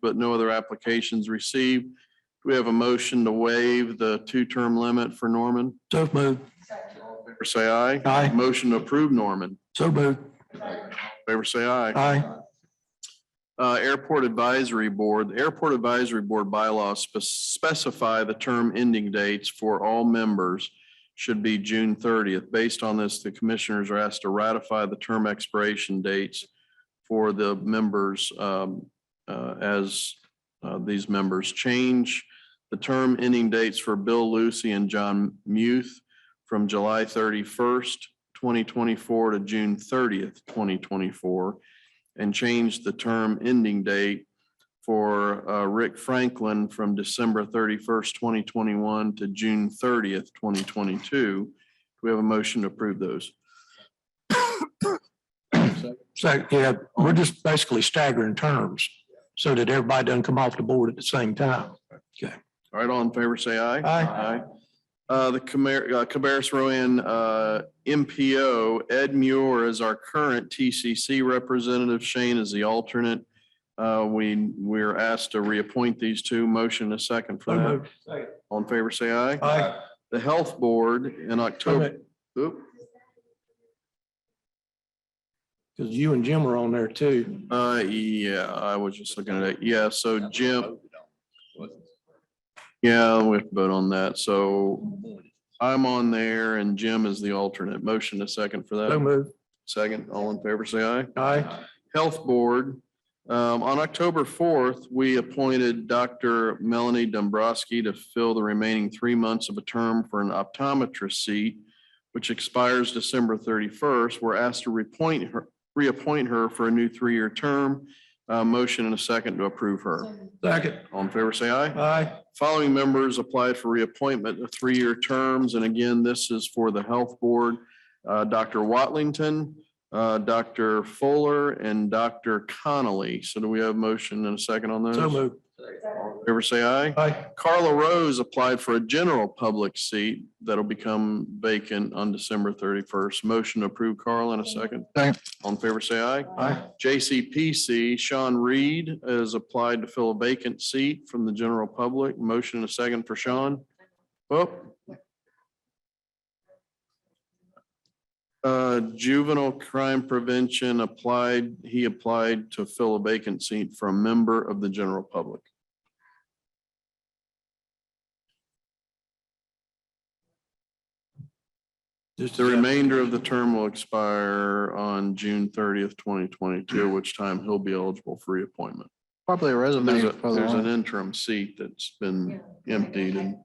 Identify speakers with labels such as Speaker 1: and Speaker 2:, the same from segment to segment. Speaker 1: but no other applications received. Do we have a motion to waive the two-term limit for Norman?
Speaker 2: So moved.
Speaker 1: All in Favor say aye.
Speaker 2: Aye.
Speaker 1: Motion to approve Norman.
Speaker 2: So moved.
Speaker 1: Favor say aye.
Speaker 2: Aye.
Speaker 1: Uh, Airport Advisory Board, The Airport Advisory Board bylaws spe- specify the term ending dates for all members should be June thirtieth. Based on this, the commissioners are asked to ratify the term expiration dates for the members um, uh, as uh, these members change. The term ending dates for Bill Lucy and John Muth from July thirty-first, twenty twenty-four to June thirtieth, twenty twenty-four and change the term ending date for uh, Rick Franklin from December thirty-first, twenty twenty-one to June thirtieth, twenty twenty-two. Do we have a motion to approve those?
Speaker 2: So, yeah, we're just basically staggering terms so that everybody doesn't come off the board at the same time.
Speaker 1: All right, all in favor, say aye.
Speaker 2: Aye.
Speaker 1: Uh, The Camer- uh, Cabarrus Rowan uh, MPO, Ed Muir is our current TCC representative. Shane is the alternate. Uh, We, we're asked to reappoint these two. Motion a second for
Speaker 2: So
Speaker 1: that.
Speaker 2: moved.
Speaker 1: All in favor, say aye.
Speaker 2: Aye.
Speaker 1: The Health Board in October.
Speaker 2: Because
Speaker 1: Oop.
Speaker 2: you and Jim were on there too.
Speaker 1: Uh, yeah, I was just looking at it. Yeah, so Jim, yeah, we have to vote on that. So I'm on there and Jim is the alternate. Motion a second for
Speaker 2: So
Speaker 1: that.
Speaker 2: moved.
Speaker 1: Second, all in favor, say aye.
Speaker 2: Aye.
Speaker 1: Health Board. Um, on October fourth, we appointed Dr. Melanie Dombrowski to fill the remaining three months of a term for an optometrist seat, which expires December thirty-first. We're asked to reappoint her, reappoint her for a new three-year term. Uh, motion and a second to approve her.
Speaker 2: Second.
Speaker 1: All in favor, say aye.
Speaker 2: Aye.
Speaker 1: Following members applied for reappointment of three-year terms, and again, this is for the Health Board. Uh, Dr. Watlington, uh, Dr. Fuller, and Dr. Connolly. So do we have a motion and a second on those?
Speaker 2: So moved.
Speaker 1: Favor say aye.
Speaker 2: Aye.
Speaker 1: Carla Rose applied for a general public seat that'll become vacant on December thirty-first. Motion to approve, Carl, in a second.
Speaker 2: Second.
Speaker 1: On favor, say aye.
Speaker 2: Aye.
Speaker 1: JCPC, Sean Reed has applied to fill a vacant seat from the general public. Motion and a second for Sean. Oh. Uh, Juvenile Crime Prevention applied, he applied to fill a vacant seat for a member of the general public.
Speaker 2: Just
Speaker 1: The remainder of the term will expire on June thirtieth, twenty twenty-two, which time he'll be eligible for reappointment.
Speaker 3: Probably a
Speaker 1: There's
Speaker 3: resume.
Speaker 1: a, there's an interim seat that's been emptied and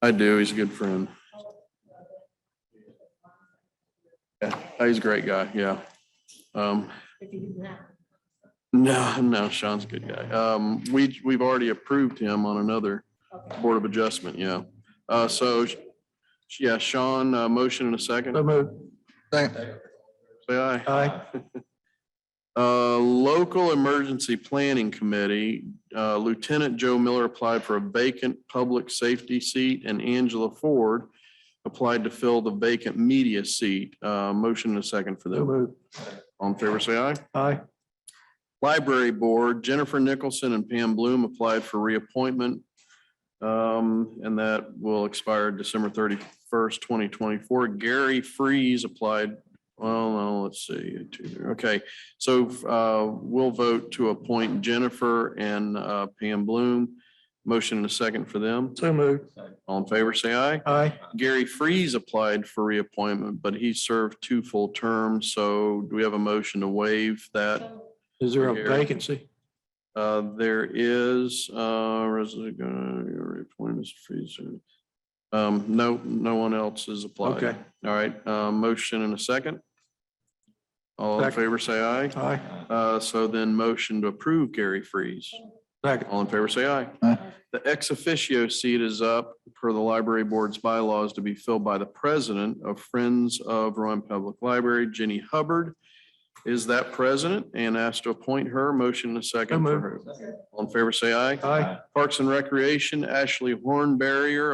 Speaker 1: I do, he's a good friend. Yeah, he's a great guy, yeah. Um, no, no, Sean's a good guy. Um, we, we've already approved him on another Board of Adjustment, yeah. Uh, so, yeah, Sean, uh, motion in a second,
Speaker 2: So moved.
Speaker 1: say aye.
Speaker 2: Aye.
Speaker 1: Uh, Local Emergency Planning Committee, uh, Lieutenant Joe Miller applied for a vacant public safety seat and Angela Ford applied to fill the vacant media seat. Uh, Motion and a second for
Speaker 2: So
Speaker 1: them.
Speaker 2: moved.
Speaker 1: All in favor, say aye.
Speaker 2: Aye.
Speaker 1: Library Board, Jennifer Nicholson and Pam Bloom applied for reappointment. um, And that will expire December thirty-first, twenty twenty-four. Gary Freeze applied, well, no, let's see, two, okay. So uh, we'll vote to appoint Jennifer and uh, Pam Bloom. Motion and a second for them.
Speaker 2: So moved.
Speaker 1: All in favor, say aye.
Speaker 2: Aye.
Speaker 1: Gary Freeze applied for reappointment, but he served two full terms. So do we have a motion to waive that?
Speaker 2: Is there a
Speaker 1: Here.
Speaker 2: vacancy?
Speaker 1: Uh, there is, uh, resident, reappointments, fees. uh, Um, no, no one else has applied.
Speaker 2: Okay.
Speaker 1: All right, uh, motion and a second. All in
Speaker 2: Second.
Speaker 1: favor, say aye.
Speaker 2: Aye.
Speaker 1: Uh, so then motion to approve Gary Freeze.
Speaker 2: Second.
Speaker 1: All in favor, say aye.
Speaker 3: Aye.
Speaker 1: The ex officio seat is up per the library board's bylaws to be filled by the president of Friends of Rowan Public Library, Jenny Hubbard. Is that president and asked to appoint her. Motion and a second for her. All in favor, say aye.
Speaker 2: Aye.
Speaker 1: Parks and Recreation, Ashley Hornberrier,